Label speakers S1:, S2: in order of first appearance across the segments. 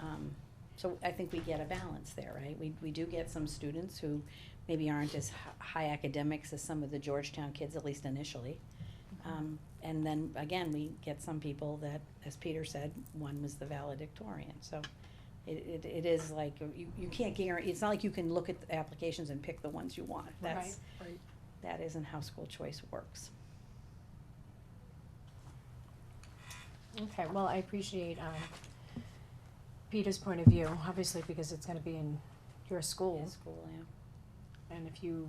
S1: Um, so I think we get a balance there, right? We, we do get some students who maybe aren't as hi- high academics as some of the Georgetown kids, at least initially. Um, and then again, we get some people that, as Peter said, one was the valedictorian, so it, it, it is like, you, you can't guarantee, it's not like you can look at the applications and pick the ones you want. That's,
S2: Right.
S1: that isn't how school choice works.
S2: Okay, well, I appreciate, um, Peter's point of view, obviously, because it's gonna be in your
S1: In
S2: school,
S1: school, yeah.
S2: and if you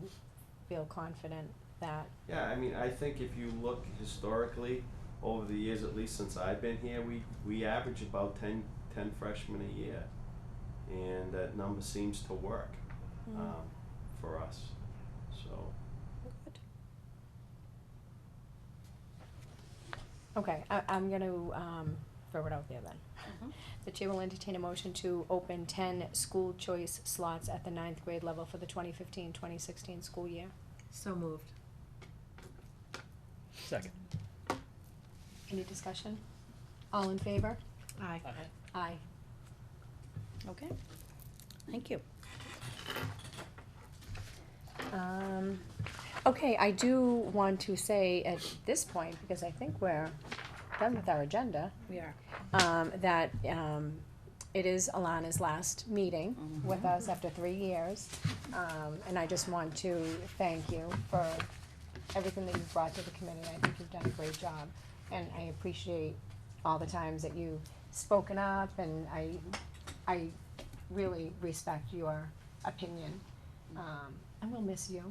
S2: feel confident that,
S3: Yeah, I mean, I think if you look historically, over the years, at least since I've been here, we, we average about 10, 10 freshmen a year. And that number seems to work
S2: Mm-hmm.
S3: um, for us. So,
S2: okay, I, I'm gonna, um, throw it out there then.
S1: Mhm.
S2: The chair will entertain a motion to open ten school choice slots at the ninth grade level for the 2015-2016 school year.
S4: So moved.
S5: Second.
S2: Any discussion? All in favor?
S4: Aye.
S2: Aye.
S1: Okay, thank you.
S2: Um, okay, I do want to say at this point, because I think we're done with our agenda,
S1: We are.
S2: um, that, um, it is Alana's last meeting with
S1: Mm-hmm.
S2: us after three years. Um, and I just want to thank you for everything that you've brought to the committee. I think you've done a great job. And I appreciate all the times that you've spoken up and I, I really respect your opinion. Um, and we'll miss you.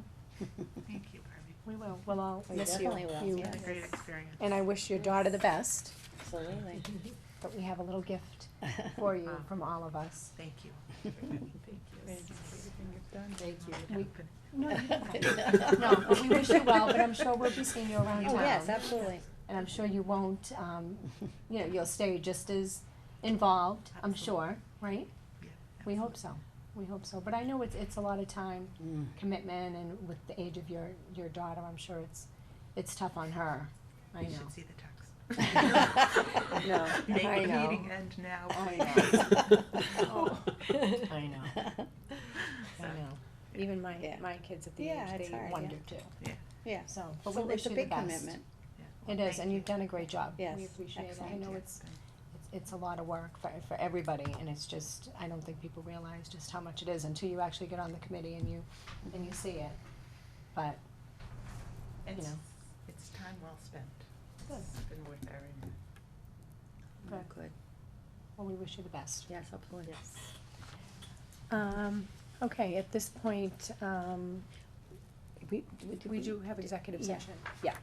S1: Mm-hmm.
S4: Thank you, Barbie.
S2: We will, we'll all
S1: We
S2: miss you.
S1: definitely will,
S2: You-
S1: yeah.
S4: What a great experience.
S2: And I wish your daughter the best,
S1: Absolutely.
S2: but we have a little gift for you
S4: Wow.
S2: from all of us.
S4: Uh-huh. Thank you.
S1: Thank you.
S2: We- No, you
S1: No,
S2: No, but we wish you well, but I'm sure we'll be seeing you around
S1: Oh, yes,
S2: town.
S1: absolutely.
S2: And I'm sure you won't, um, you know, you'll stay just as involved, I'm sure, right?
S4: Yeah,
S2: We hope so, we hope so, but I know it's, it's a lot of time
S1: Mm.
S2: commitment and with the age of your, your daughter, I'm sure it's, it's tough on her, I know.
S4: You should see the text.
S2: No,
S4: Make
S2: I
S4: the
S2: know.
S4: meeting end now,
S2: I
S4: please.
S2: Oh. I know, I
S4: So,
S2: know, even my,
S1: Yeah.
S2: my kids at the
S1: Yeah,
S2: age,
S1: it's
S2: they
S1: hard,
S2: wonder too,
S1: Yeah.
S2: so, but we
S1: So
S2: wish
S1: it's a
S2: you the
S1: big
S2: best.
S1: commitment.
S4: yeah.
S2: It
S4: Well,
S2: is,
S4: thank
S2: and
S4: you.
S2: you've done a great job.
S1: Yes,
S2: We appreciate it. I
S1: excellent,
S2: know
S1: yeah.
S2: it's, it's, it's a lot of work for, for everybody, and it's just, I don't think people realize just how much it is until you actually get on the committee and you, and you see it. But, you
S4: It's,
S2: know.
S4: it's time well spent.
S2: Good.
S4: It's been worth every minute.
S2: Good.
S1: Good.
S2: well, we wish you the best.
S1: Yes, absolutely.
S2: Um, okay, at this point, um,
S1: We,
S2: we do have executive
S1: yeah.
S2: session. Yeah.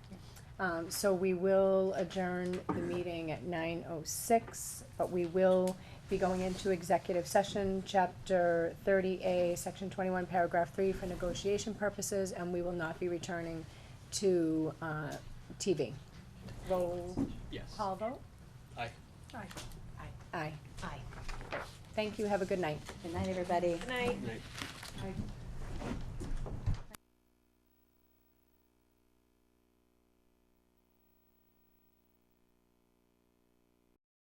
S2: Um, so we will adjourn the meeting at nine oh six, but we will be going into executive session, chapter thirty A, section twenty-one, paragraph three, for negotiation purposes, and we will not be returning to, uh, TV. Roll
S5: Yes.
S2: call vote?
S5: Aye.
S4: Aye. Aye.
S2: Aye. Aye. Thank you, have a good night.
S1: Good night, everybody.
S5: Right.